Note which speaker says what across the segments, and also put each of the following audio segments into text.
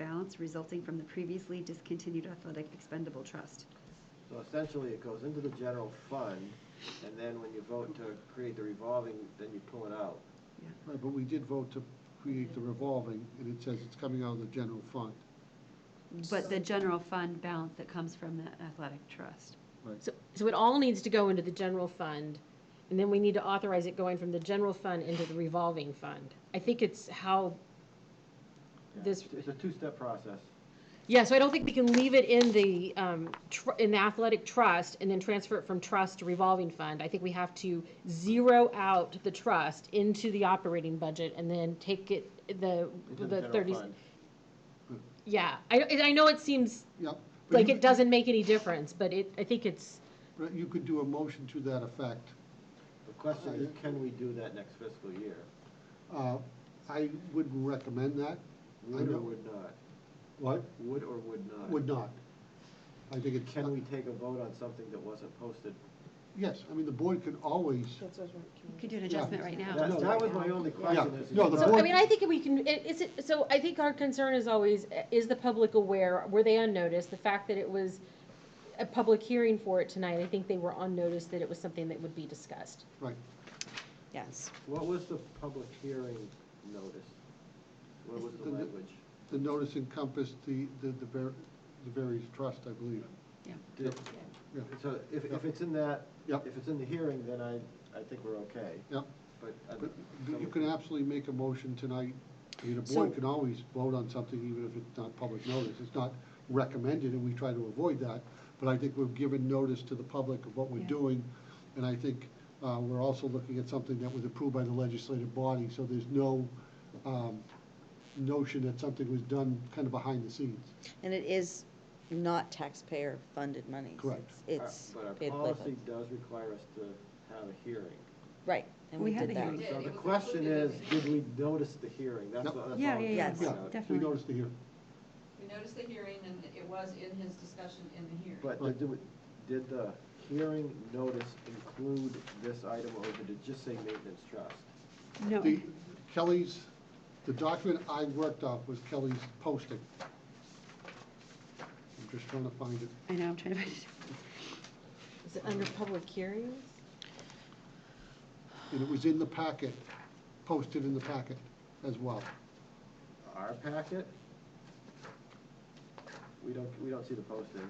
Speaker 1: accounts resulting from the previously discontinued athletic expendable trust.
Speaker 2: So essentially, it goes into the general fund, and then when you vote to create the revolving, then you pull it out.
Speaker 3: Right, Uh, but we did vote to create the revolving, and it says it's coming out of the general fund.
Speaker 1: But the general fund balance that comes from the athletic trust.
Speaker 4: So, so it all needs to go into the general fund, and then we need to authorize it going from the general fund into the revolving fund. I think it's how this,
Speaker 2: It's- It's a two-step process.
Speaker 4: yeah, so I don't think we can leave it in the, um, tr- in the athletic trust and then transfer it from trust to revolving fund. I think we have to zero out the trust into the operating budget and then take it, the,
Speaker 2: It's in the
Speaker 4: the
Speaker 2: general
Speaker 4: thirty.
Speaker 2: fund.
Speaker 4: Yeah, I, I know it seems
Speaker 3: Yep. but
Speaker 4: like
Speaker 3: you-
Speaker 4: it doesn't make any difference, but it, I think it's,
Speaker 3: but You could do a motion to that effect.
Speaker 2: The question is, can we do that next fiscal year?
Speaker 3: Uh, I wouldn't recommend that. I
Speaker 2: Would or
Speaker 3: know-
Speaker 2: would not?
Speaker 3: What?
Speaker 2: Would or would not?
Speaker 3: Would not. I think it's.
Speaker 2: Can we take a vote on something that wasn't posted?
Speaker 3: Yes, I mean, the board can always,
Speaker 5: That's what I was wondering,
Speaker 1: You
Speaker 5: can
Speaker 1: could do an adjustment right now.
Speaker 2: Mm. That that was my only question.
Speaker 3: Yeah.
Speaker 2: is-
Speaker 3: No, the
Speaker 4: So, I
Speaker 3: board-
Speaker 4: mean, I think we can, i- is it, so I think our concern is always, uh, is the public aware, were they on notice? The fact that it was a public hearing for it tonight, I think they were on notice that it was something that would be discussed.
Speaker 3: right,
Speaker 4: Yes.
Speaker 2: What was the public hearing notice? What was the
Speaker 3: The- the-
Speaker 2: language?
Speaker 3: the notice encompassed the, the, the var- the various trust, I believe.
Speaker 2: Did-
Speaker 3: Yeah.
Speaker 2: So if, if it's in that,
Speaker 3: Yep.
Speaker 2: if it's in the hearing, then I, I think we're okay,
Speaker 3: Yep,
Speaker 2: but. I'd-
Speaker 3: but you can absolutely make a motion tonight. I mean, the
Speaker 4: So-
Speaker 3: board can always vote on something even if it's not public notice. It's not recommended, and we try to avoid that. But I think we've given notice to the public of what we're
Speaker 1: Yeah.
Speaker 3: doing. And I think uh, we're also looking at something that was approved by the legislative body, so there's no um, notion that something was done kind of behind the scenes.
Speaker 5: you- And it is not taxpayer-funded money.
Speaker 3: Correct.
Speaker 2: Our-
Speaker 5: It's.
Speaker 2: uh, But our
Speaker 5: paid
Speaker 2: policy does require us to have a hearing.
Speaker 5: Right, and
Speaker 1: We
Speaker 5: we
Speaker 1: had
Speaker 5: did
Speaker 1: a
Speaker 5: that.
Speaker 1: hearing.
Speaker 2: So the question is, did we notice the hearing? That's,
Speaker 3: Yep.
Speaker 2: what- that's all.
Speaker 1: Yeah,
Speaker 2: I'm
Speaker 1: yeah,
Speaker 2: trying to
Speaker 5: yeah,
Speaker 2: find out.
Speaker 3: We
Speaker 1: definitely.
Speaker 3: noticed it here.
Speaker 6: We noticed the hearing, and it was in his discussion in the hearing.
Speaker 2: But did, the- did the hearing notice include this item, or did it just say maintenance trust?
Speaker 1: No,
Speaker 3: The, Kelly's, the document I worked off was Kelly's posting. I'm just trying to find it.
Speaker 1: I know, I'm trying to find it.
Speaker 4: Is it under public hearings?
Speaker 3: And it was in the packet, posted in the packet as well.
Speaker 2: Our packet? We don't, we don't see the postings.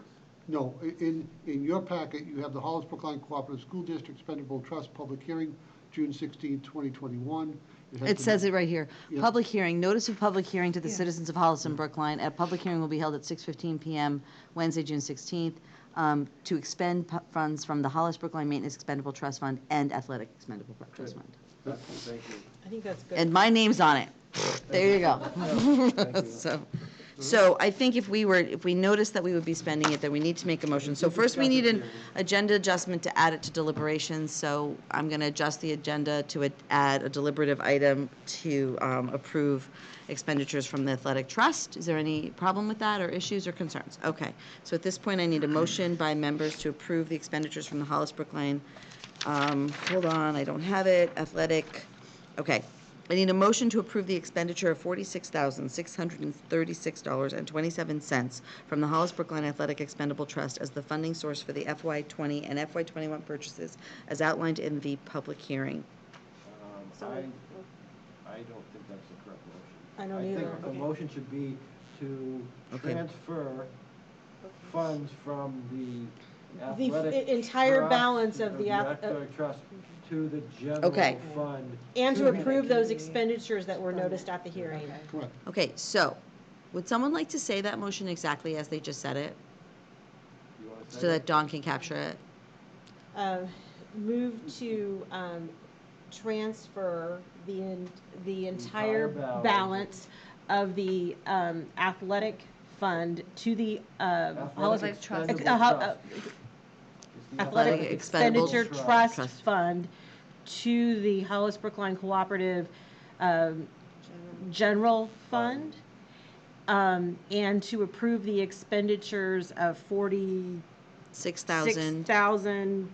Speaker 3: No, i- in, in your packet, you have the Hollis Brookline Cooperative School District Spendable Trust Public Hearing, June 16, 2021. has
Speaker 7: It
Speaker 3: been-
Speaker 7: says it right here.
Speaker 3: Yeah.
Speaker 7: Public hearing, notice of public hearing to the
Speaker 1: Yeah.
Speaker 7: citizens of Hollis and Brookline. A public hearing will be held at 6:15 PM Wednesday, June 16th, um, to expend pu- funds from the Hollis Brookline Maintenance Expendable Trust Fund and Athletic Expendable Pro- Trust
Speaker 2: Good.
Speaker 7: Fund.
Speaker 2: Thank you.
Speaker 4: I think that's good.
Speaker 7: And my name's on it. There you
Speaker 2: Oh, Thank
Speaker 7: go.
Speaker 2: you.
Speaker 7: So, so I think if we were, if we noticed that we would be spending it, then we need to make a motion. So first,
Speaker 2: discuss
Speaker 7: we need
Speaker 2: it
Speaker 7: an
Speaker 2: here.
Speaker 7: agenda adjustment to add it to deliberations, so I'm going to adjust the agenda to ad- add a deliberative item to um, approve expenditures from the athletic trust. Is there any problem with that, or issues or concerns? Okay, so at this point, I need a motion by members to approve the expenditures from the Hollis Brookline, um, hold on, I don't have it, athletic, okay. I need a motion to approve the expenditure of forty-six thousand, six hundred and thirty-six dollars and twenty-seven cents from the Hollis Brookline Athletic Expendable Trust as the funding source for the FY twenty and FY twenty-one purchases as outlined in the public hearing.
Speaker 2: Um, I,
Speaker 5: Sorry.
Speaker 2: I don't think that's the correct motion.
Speaker 4: I don't
Speaker 2: I
Speaker 4: either.
Speaker 2: think the
Speaker 4: Okay.
Speaker 2: motion should be to
Speaker 7: Okay.
Speaker 2: transfer funds from the
Speaker 4: The f-
Speaker 2: athletic.
Speaker 4: entire
Speaker 2: trust-
Speaker 4: balance of the ath- uh,
Speaker 2: athletic trust to the
Speaker 7: Okay.
Speaker 2: general fund.
Speaker 4: And to approve those expenditures that were noticed at the hearing.
Speaker 3: Correct.
Speaker 7: Okay, so, would someone like to say that motion exactly as they just said it,
Speaker 2: You wanna
Speaker 7: so
Speaker 2: say
Speaker 7: that
Speaker 2: it?
Speaker 7: Don can capture it?
Speaker 4: Um, Move to um, transfer the, en- the
Speaker 2: Entire
Speaker 4: entire
Speaker 2: balance.
Speaker 4: balance of the um, athletic fund to the um, Hollis
Speaker 2: Athletic
Speaker 1: trust.
Speaker 2: expendable
Speaker 4: Uh, ho- uh,
Speaker 2: trust. It's the
Speaker 4: Athletic
Speaker 7: Expendable
Speaker 4: Expenditure
Speaker 2: Trust.
Speaker 4: Trust
Speaker 7: Trust.
Speaker 4: Fund to the Hollis Brookline Cooperative um, General Fund, um, and to approve the expenditures of
Speaker 7: Six thousand,
Speaker 4: $46,600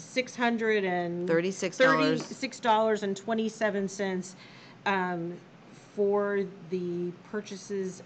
Speaker 7: six hundred,
Speaker 4: and...
Speaker 7: thirty-six dollars.
Speaker 4: Thirty-six dollars and twenty-seven cents, um, for the purchases